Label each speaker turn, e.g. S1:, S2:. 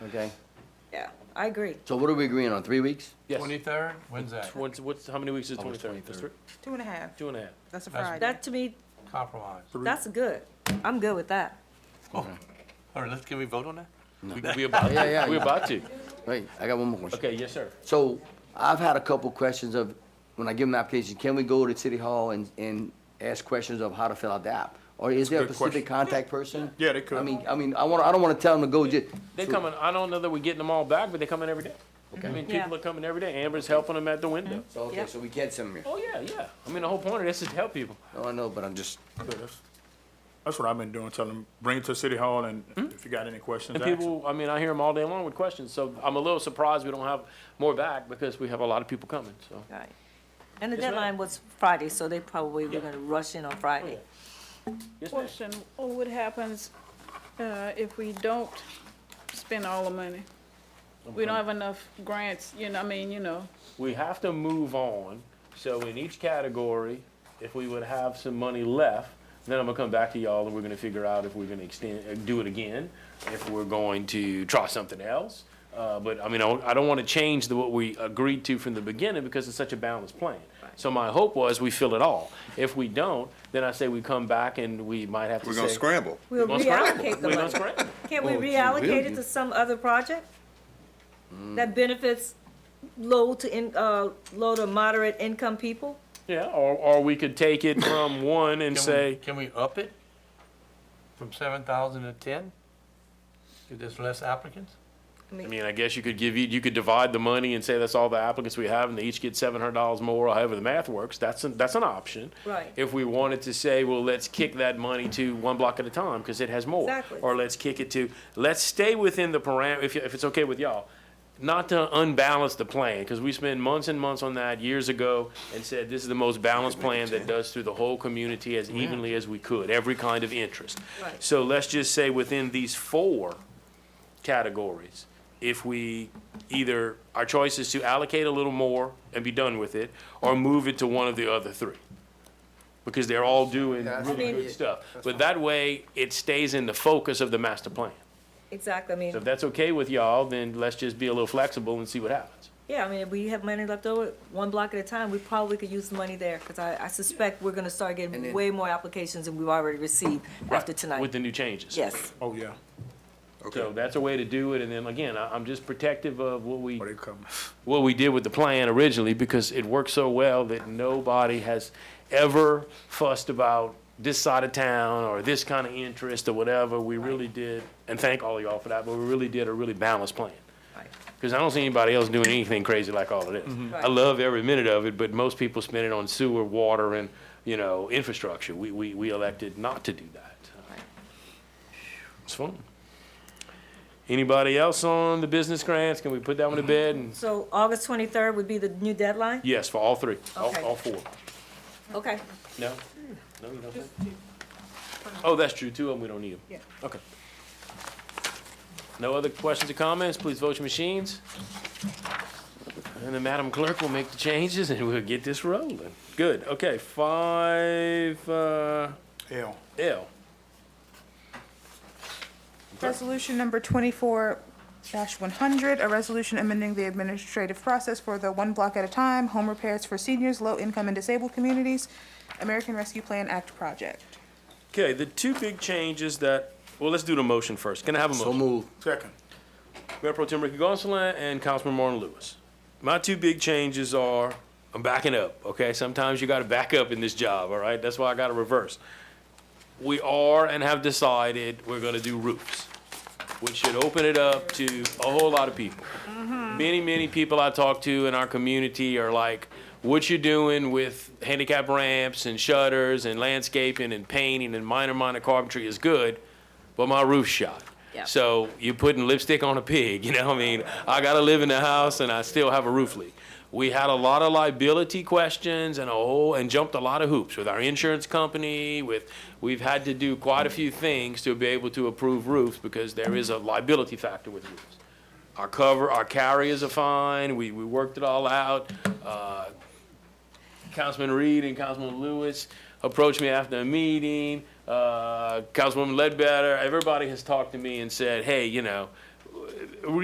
S1: okay?
S2: Yeah, I agree.
S1: So what are we agreeing on, three weeks?
S3: Yes.
S4: Twenty-third, when's that?
S3: Tw- What's, what's, how many weeks is
S5: On the
S3: twenty-third?
S5: 23rd.
S6: Two and a half.
S3: Two and a half.
S6: That's a
S4: That's-
S6: Friday.
S2: That to me,
S4: Compromise. All
S2: that's good. I'm good with that.
S4: right, let's, can we vote on that?
S3: We, we about,
S1: Yeah, yeah,
S3: we
S1: yeah.
S3: about to.
S1: Wait, I got one more question.
S3: Okay, yes, sir.
S1: So I've had a couple questions of, when I give them the application, can we go to City Hall and, and ask questions of how to fill out the app? Or is there a
S5: good
S1: specific contact person?
S5: Yeah, they could.
S1: I mean, I mean, I wanna, I don't wanna tell them to go just.
S3: They coming, I don't know that we're getting them all back, but they coming every day. I mean,
S2: Yeah.
S3: people are coming every day. Amber's helping them at the window.
S1: So, okay,
S2: Yep.
S1: so we can't send them here.
S3: Oh, yeah, yeah. I mean, the whole point of this is to help people.
S1: No, I know, but I'm just,
S5: Yeah, That's that's what I've been doing, telling them, bring it to City Hall and if you got any questions,
S3: Hmm? And
S5: ask 'em.
S3: people, I mean, I hear them all day long with questions, so I'm a little surprised we don't have more back because we have a lot of people coming, so.
S2: Right. And the
S3: ma'am.
S2: deadline was Friday, so they probably were
S3: Yeah.
S2: gonna rush in on Friday.
S3: Oh, Yes, ma'am.
S7: Question, what happens uh, if we don't spend all the money? We don't have enough grants, you know, I mean, you know,
S3: We have to move on, so in each category, if we would have some money left, then I'm gonna come back to y'all and we're gonna figure out if we're gonna extend, uh, do it again, if we're going to try something else. Uh, but I mean, I, don't- I don't wanna change the, what we agreed to from the beginning because it's such a balanced plan. So my hope was we fill it all. If we don't, then I say we come back and we might have to say.
S8: We're gonna scramble.
S2: We'll
S3: We're gonna scramble.
S2: reallocate the
S3: We're gonna
S2: money.
S3: scramble.
S2: Can't we
S1: Well, it's
S2: reallocate it
S1: really-
S2: to some other project?
S3: Mm.
S2: That benefits low to in, uh, low to moderate income people?
S3: Yeah, or, or we could take it from one and
S4: Can we-
S3: say,
S4: Can we up it from seven thousand to ten? If there's less applicants?
S3: I mean, I guess you could give, you could divide the money and say that's all the applicants we have and they each get seven hundred dollars more, or however the math works, that's, an- that's an option.
S2: Right.
S3: If we wanted to say, well, let's kick that money to one block at a time, because it has more.
S2: Exactly.
S3: Or let's kick it to, let's stay within the param, if, you- if it's okay with y'all, not to unbalance the plan, because we spent months and months on that years ago and said, this is the most balanced plan that does through the whole community as evenly as we could, every kind of interest.
S2: Right.
S3: So let's just say within these four categories, if we either, our choice is to allocate a little more and be done with it, or move it to one of the other three. Because they're all doing
S1: Yeah, that's
S3: really
S2: fine.
S3: good stuff. But that way, it stays in the focus of the master plan.
S2: Exactly, I mean.
S3: So if that's okay with y'all, then let's just be a little flexible and see what happens.
S2: Yeah, I mean, if we have money left over, one block at a time, we probably could use the money there, because I, I suspect we're gonna start
S1: And
S2: getting
S1: then-
S2: way more applications than we've already received after
S3: Right, With
S2: tonight.
S3: the new changes.
S2: Yes,
S5: Oh, yeah, Oh,
S3: So that's a way to do it, and then again, I, I'm just protective of what we
S5: or they come.
S3: what we did with the plan originally because it worked so well that nobody has ever fussed about this side of town or this kind of interest or whatever. We really did, and thank all of y'all for that, but we really did a really balanced plan.
S2: Right.
S3: Because I don't see anybody else doing anything crazy like all of this. I
S2: Right.
S3: love every minute of it, but most people spend it on sewer, water, and, you know, infrastructure. We, we, we elected not to do that. It's fun. Anybody else on the business grants? Can we put that one to bed and
S2: so August twenty-third would be the new deadline?
S3: Yes, for all three, all,
S2: Okay.
S3: all four.
S2: Okay,
S3: No? No, you don't think? Oh, that's true, two of them, we don't need them.
S6: Yeah.
S3: Okay. No other questions or comments, please vote your machines. And then Madam Clerk will make the changes and we'll get this rolling. Good, okay, five, uh,
S5: L.
S3: L.
S6: Resolution number twenty-four one hundred, a resolution amending the administrative process for the one block at a time, home repairs for seniors, low-income and disabled communities, American Rescue Plan Act project.
S3: Okay, the two big changes that, well, let's do the motion first, can I have a motion?
S1: so move.
S5: Second.
S3: Mayor Pro Tem Ricky Gonsalas and Councilman Martin Lewis. My two big changes are, I'm backing up, okay? Sometimes you gotta back up in this job, all right? That's why I gotta reverse. We are and have decided we're gonna do roofs, which should open it up to a whole lot of people. Many, many people I talk to in our community are like, what you doing with handicap ramps and shutters and landscaping and painting and minor, minor carpentry is good, but my roof's shot.
S2: Yeah.
S3: So you're putting lipstick on a pig, you know what I mean? I gotta live in the house and I still have a roof leak. We had a lot of liability questions and a whole, and jumped a lot of hoops with our insurance company, with, we've had to do quite a few things to be able to approve roofs because there is a liability factor with roofs our cover, our carriers are fine, we, we worked it all out. Uh, Councilman Reed and Councilman Lewis approached me after a meeting, uh, Councilwoman Ledbetter, everybody has talked to me and said, hey, you know,